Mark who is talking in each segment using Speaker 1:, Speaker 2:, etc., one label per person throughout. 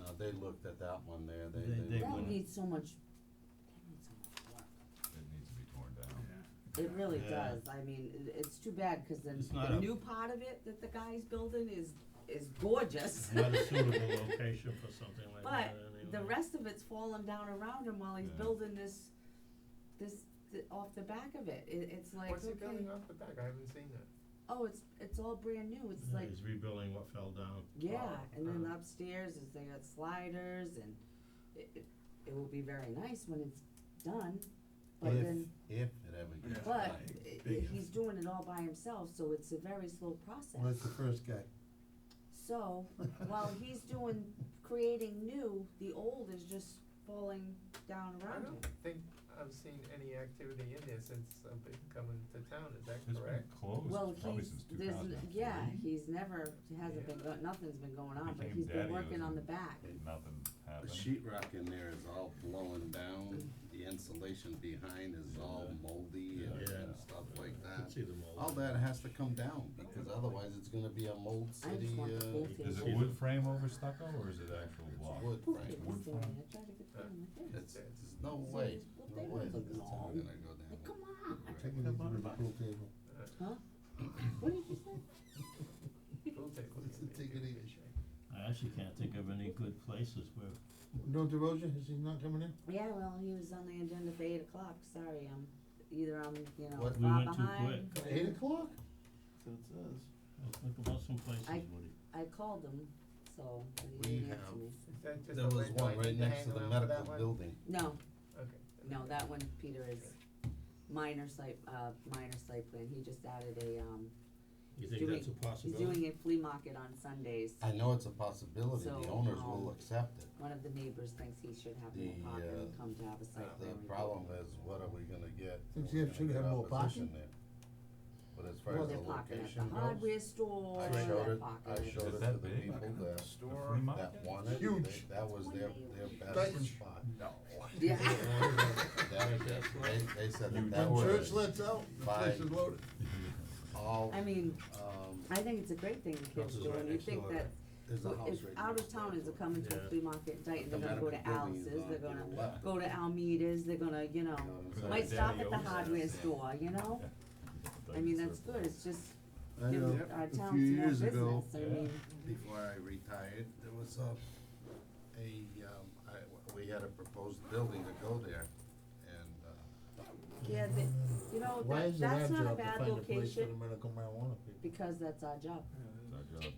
Speaker 1: Uh, they looked at that one there, they,
Speaker 2: They-
Speaker 1: they.
Speaker 2: they
Speaker 1: looked-
Speaker 2: wouldn't.
Speaker 3: That needs so much, that needs so much work.
Speaker 4: It needs to be torn down.
Speaker 3: It really
Speaker 2: Yeah.
Speaker 3: does, I mean, it, it's too bad, cause then
Speaker 2: It's not
Speaker 3: the
Speaker 2: a-
Speaker 3: new part of it that the guy's building is, is gorgeous.
Speaker 2: It's not a suitable location for something like
Speaker 3: But
Speaker 2: that anyway.
Speaker 3: The rest of it's falling down around him while he's
Speaker 4: Yeah.
Speaker 3: building this, this, th- off the back of it, it, it's like,
Speaker 5: What's he
Speaker 3: okay,
Speaker 5: building off the back? I haven't seen that.
Speaker 3: oh, it's, it's all brand new, it's
Speaker 2: Yeah,
Speaker 3: like,
Speaker 2: He's rebuilding what fell down.
Speaker 3: yeah,
Speaker 5: Wow.
Speaker 3: and then
Speaker 5: Uh-huh.
Speaker 3: upstairs is they got sliders and it, it, it will be very nice when it's done, but
Speaker 1: If-
Speaker 3: then,
Speaker 1: If it ever gets
Speaker 4: Yeah.
Speaker 3: but
Speaker 1: done.
Speaker 3: i- i-
Speaker 4: big if.
Speaker 3: he's doing it all by himself, so it's a very slow process.
Speaker 6: Well, that's the first guy.
Speaker 3: So, while he's doing, creating new, the old is just falling down
Speaker 5: I
Speaker 3: around him.
Speaker 5: don't think I've seen any activity in there since I've been coming to town, is that
Speaker 4: It's been
Speaker 5: correct?
Speaker 3: Well,
Speaker 4: closed probably
Speaker 3: he's,
Speaker 4: since two
Speaker 3: there's,
Speaker 4: thousand
Speaker 3: n-
Speaker 4: and three.
Speaker 3: yeah, he's never, hasn't been,
Speaker 5: Yeah.
Speaker 3: go- nothing's been going on, but
Speaker 4: Became
Speaker 3: he's been
Speaker 4: daddy
Speaker 3: working on the
Speaker 4: isn't
Speaker 3: back.
Speaker 4: Nothing
Speaker 1: The
Speaker 4: happened.
Speaker 1: sheet rock in there is all blowing down, the insulation behind is all
Speaker 2: Yeah.
Speaker 1: moldy and
Speaker 2: Yeah.
Speaker 1: and stuff like
Speaker 2: I could
Speaker 1: that.
Speaker 2: see them all.
Speaker 1: All that has to come down, because otherwise it's gonna be a mold
Speaker 3: I just
Speaker 1: city,
Speaker 3: want the whole
Speaker 1: uh,
Speaker 3: thing.
Speaker 4: Is
Speaker 2: She's
Speaker 4: it
Speaker 2: a-
Speaker 4: wood frame over stucco or is it actual block?
Speaker 1: it's wood,
Speaker 3: Poof,
Speaker 1: right?
Speaker 3: it was
Speaker 4: Wood
Speaker 3: there,
Speaker 4: frame.
Speaker 3: I tried to get
Speaker 5: Uh,
Speaker 3: them like this.
Speaker 1: It's, there's no way,
Speaker 3: well,
Speaker 1: no
Speaker 3: they
Speaker 1: way
Speaker 3: don't
Speaker 1: that this is
Speaker 3: know.
Speaker 1: gonna go down.
Speaker 3: Like, come on,
Speaker 6: Take it easy with the pool table.
Speaker 5: Uh,
Speaker 3: what did you say?
Speaker 5: We'll take a look
Speaker 1: It's a
Speaker 5: at it.
Speaker 1: ticket issue.
Speaker 2: I actually can't think of any good places where,
Speaker 6: No DeRosa, is he not coming in?
Speaker 3: Yeah, well, he was on the agenda for eight o'clock, sorry, I'm, either I'm, you know,
Speaker 1: What?
Speaker 2: We
Speaker 3: far
Speaker 2: went too
Speaker 3: behind.
Speaker 6: Eight o'clock?
Speaker 2: Well, think about some places,
Speaker 3: I-
Speaker 2: Woody.
Speaker 3: I called him, so, but
Speaker 1: We
Speaker 3: he didn't
Speaker 1: have-
Speaker 3: answer me.
Speaker 5: Is that just
Speaker 1: There
Speaker 5: a
Speaker 1: was
Speaker 5: window I
Speaker 1: one right
Speaker 5: need to
Speaker 1: next
Speaker 5: hang
Speaker 1: to the
Speaker 5: around for
Speaker 1: medical
Speaker 5: that one?
Speaker 1: building.
Speaker 3: No,
Speaker 5: Okay.
Speaker 3: No, that one, Peter, is minor site, uh, minor site plan, he just added a, um,
Speaker 2: You think
Speaker 3: he's
Speaker 2: that's a
Speaker 3: doing- he's
Speaker 2: possibility?
Speaker 3: doing a flea market on Sundays.
Speaker 1: I know it's a possibility, the
Speaker 3: So,
Speaker 1: owners
Speaker 3: um,
Speaker 1: will accept it.
Speaker 3: One of the neighbors thinks he should have more
Speaker 1: The,
Speaker 3: parking and
Speaker 1: uh,
Speaker 3: come to have a site
Speaker 1: The
Speaker 3: plan review.
Speaker 1: problem is, what are we gonna get?
Speaker 6: Think
Speaker 1: We're
Speaker 6: you
Speaker 1: gonna
Speaker 6: should
Speaker 1: get
Speaker 6: have more
Speaker 1: opposition
Speaker 6: parking?
Speaker 1: there. But as far
Speaker 6: Well,
Speaker 1: as the
Speaker 3: They're parking at the
Speaker 1: location
Speaker 3: hardware
Speaker 1: goes,
Speaker 3: store,
Speaker 1: I showed
Speaker 3: they're
Speaker 1: it,
Speaker 3: parking
Speaker 1: I
Speaker 3: at-
Speaker 1: showed
Speaker 4: Is
Speaker 1: it to
Speaker 4: that
Speaker 1: the
Speaker 4: big?
Speaker 1: people that,
Speaker 4: The free
Speaker 1: that
Speaker 4: market?
Speaker 1: wanted, it.
Speaker 6: Huge.
Speaker 1: They- that was their, their best
Speaker 6: Huge.
Speaker 1: spot.
Speaker 3: Yeah,
Speaker 1: That, they, they said that that
Speaker 6: When church
Speaker 1: was
Speaker 6: lets out, the place is
Speaker 1: Fine.
Speaker 6: loaded.
Speaker 1: all,
Speaker 3: I mean,
Speaker 1: um,
Speaker 3: I think it's a great thing the kids
Speaker 2: Houses
Speaker 3: do,
Speaker 2: right
Speaker 3: and you
Speaker 2: next
Speaker 3: think
Speaker 2: door,
Speaker 3: that,
Speaker 1: there's a house right
Speaker 3: if out of
Speaker 1: next door
Speaker 3: towners
Speaker 1: to
Speaker 3: are
Speaker 1: it.
Speaker 3: coming to a
Speaker 2: Yeah.
Speaker 3: flea market in Dayton,
Speaker 1: The
Speaker 3: they're gonna go to
Speaker 1: medical building is
Speaker 3: Alice's,
Speaker 1: on
Speaker 3: they're
Speaker 1: to the
Speaker 3: gonna
Speaker 1: left.
Speaker 3: go to Almeida's, they're gonna, you know,
Speaker 1: You
Speaker 4: know,
Speaker 3: might
Speaker 4: Daddy
Speaker 3: stop at the
Speaker 4: owns that,
Speaker 3: hardware
Speaker 4: yeah.
Speaker 3: store, you know? I mean, that's good, it's just
Speaker 6: I
Speaker 3: give
Speaker 6: know,
Speaker 3: our
Speaker 6: a
Speaker 3: town
Speaker 6: few
Speaker 3: some more
Speaker 6: years ago,
Speaker 3: business, I mean,
Speaker 1: before I retired, there was a, a, um, I, we had a proposed building to go there, and, uh,
Speaker 3: yeah, they, you know,
Speaker 6: why
Speaker 3: that,
Speaker 6: is it our
Speaker 3: that's not a
Speaker 6: job to
Speaker 3: bad
Speaker 6: find a place for the
Speaker 3: location,
Speaker 6: medical marijuana people?
Speaker 3: because that's our job.
Speaker 4: It's our job.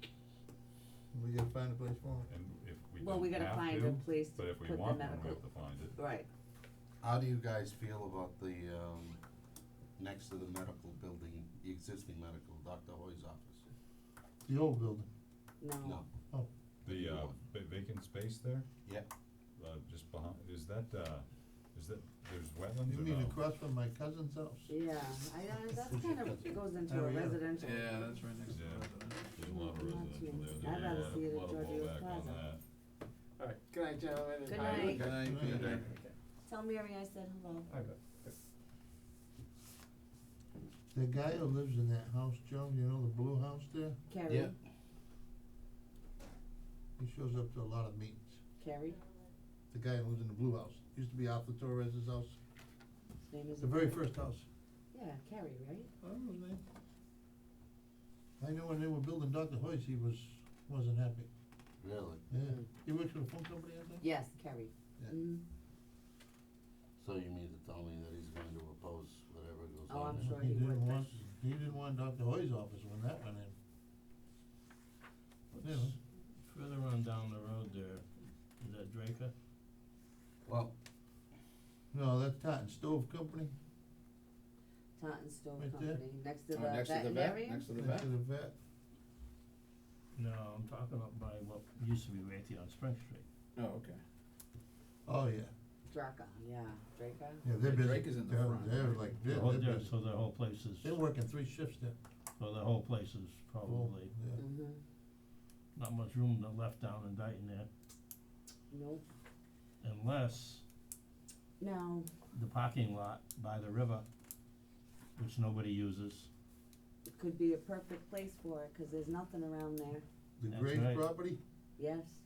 Speaker 6: We gotta find a place for them.
Speaker 4: And if we
Speaker 3: Well, we
Speaker 4: don't
Speaker 3: gotta
Speaker 4: have
Speaker 3: find
Speaker 4: to,
Speaker 3: a place to
Speaker 4: But if
Speaker 3: put
Speaker 4: we
Speaker 3: the
Speaker 4: want one, we have
Speaker 3: medical,
Speaker 4: to find it.
Speaker 3: right,
Speaker 1: how do you guys feel about the, um, next to the medical building, the existing medical, Dr. Hoy's office?
Speaker 6: The old building.
Speaker 3: no,
Speaker 1: No,
Speaker 4: The uh, va- vacant space there,
Speaker 1: yeah,
Speaker 4: uh, just behind, is that, uh, is that, there's wetlands
Speaker 6: You
Speaker 4: or
Speaker 6: mean
Speaker 4: no?
Speaker 6: across from my cousin's house?
Speaker 3: yeah, I, I, that's kind of, goes into
Speaker 6: Oh,
Speaker 3: a
Speaker 6: yeah.
Speaker 3: residential.
Speaker 7: that's right next
Speaker 4: Yeah. There's a lot of
Speaker 3: Not
Speaker 4: residential
Speaker 3: too-
Speaker 4: there,
Speaker 3: I'd
Speaker 4: there's a
Speaker 3: rather
Speaker 4: lot of,
Speaker 3: see it at
Speaker 4: lot of
Speaker 3: Georgio
Speaker 4: blowback on
Speaker 3: Plaza.
Speaker 4: that.
Speaker 5: All right, good night, gentlemen. and-
Speaker 3: Good night.
Speaker 4: Good
Speaker 6: night,
Speaker 1: Peter.
Speaker 5: Okay.
Speaker 3: Tell Mary I said hello.
Speaker 5: All right.
Speaker 6: The guy who lives in that house, Joe, you know, the blue house there,
Speaker 3: Carrie,
Speaker 6: he shows up to a lot of meetings.
Speaker 3: Carrie,
Speaker 6: The guy who lives in the blue house, used to be Alpha Torres's house,
Speaker 3: his name is.
Speaker 6: the very first house.
Speaker 3: Yeah, Carrie, right?
Speaker 6: I don't know his name. I know when they were building Dr. Hoy's, he was, wasn't happy.
Speaker 1: really,
Speaker 6: Yeah, he works for a phone company, I think.
Speaker 3: Yes, Carrie.
Speaker 6: Yeah.
Speaker 3: Mm,
Speaker 1: so you mean to tell me that he's going to oppose whatever goes
Speaker 3: Oh,
Speaker 1: on
Speaker 3: I'm
Speaker 1: there?
Speaker 3: sure
Speaker 6: He
Speaker 3: he would,
Speaker 6: didn't
Speaker 3: but
Speaker 6: want, he didn't want Dr. Hoy's office when that went in.
Speaker 2: What's Further on down the road there, is that Draker?
Speaker 1: Well,
Speaker 6: No, that's Titan Stove Company,
Speaker 3: Taunton Stove
Speaker 6: Right there.
Speaker 3: Company, next to the
Speaker 8: Oh, next to the vet,
Speaker 3: veterinarian,
Speaker 8: next to the
Speaker 6: next
Speaker 8: vet.
Speaker 6: to the vet.
Speaker 2: No, I'm talking up by what used to be Raytheon Spring Street.
Speaker 8: Oh, okay.
Speaker 6: Oh, yeah,
Speaker 3: Draca, yeah, Draca.
Speaker 6: yeah, they're
Speaker 8: Yeah,
Speaker 6: busy.
Speaker 8: Drake is in the
Speaker 6: They're-
Speaker 8: front,
Speaker 6: They're
Speaker 8: right?
Speaker 6: like, they're,
Speaker 2: Oh,
Speaker 6: they're
Speaker 2: yeah,
Speaker 6: busy.
Speaker 2: So the whole place is,
Speaker 6: They're working three shifts there.
Speaker 2: so the whole place is probably,
Speaker 6: Yeah.
Speaker 3: Mm-hmm,
Speaker 2: not much room to- left down in Dayton there,
Speaker 3: nope,
Speaker 2: unless
Speaker 3: no,
Speaker 2: the parking lot by the river, which nobody uses.
Speaker 3: it could be a perfect place for it, cause there's nothing around there,
Speaker 6: The
Speaker 2: That's
Speaker 6: Graves
Speaker 2: right.
Speaker 6: property,
Speaker 3: yes.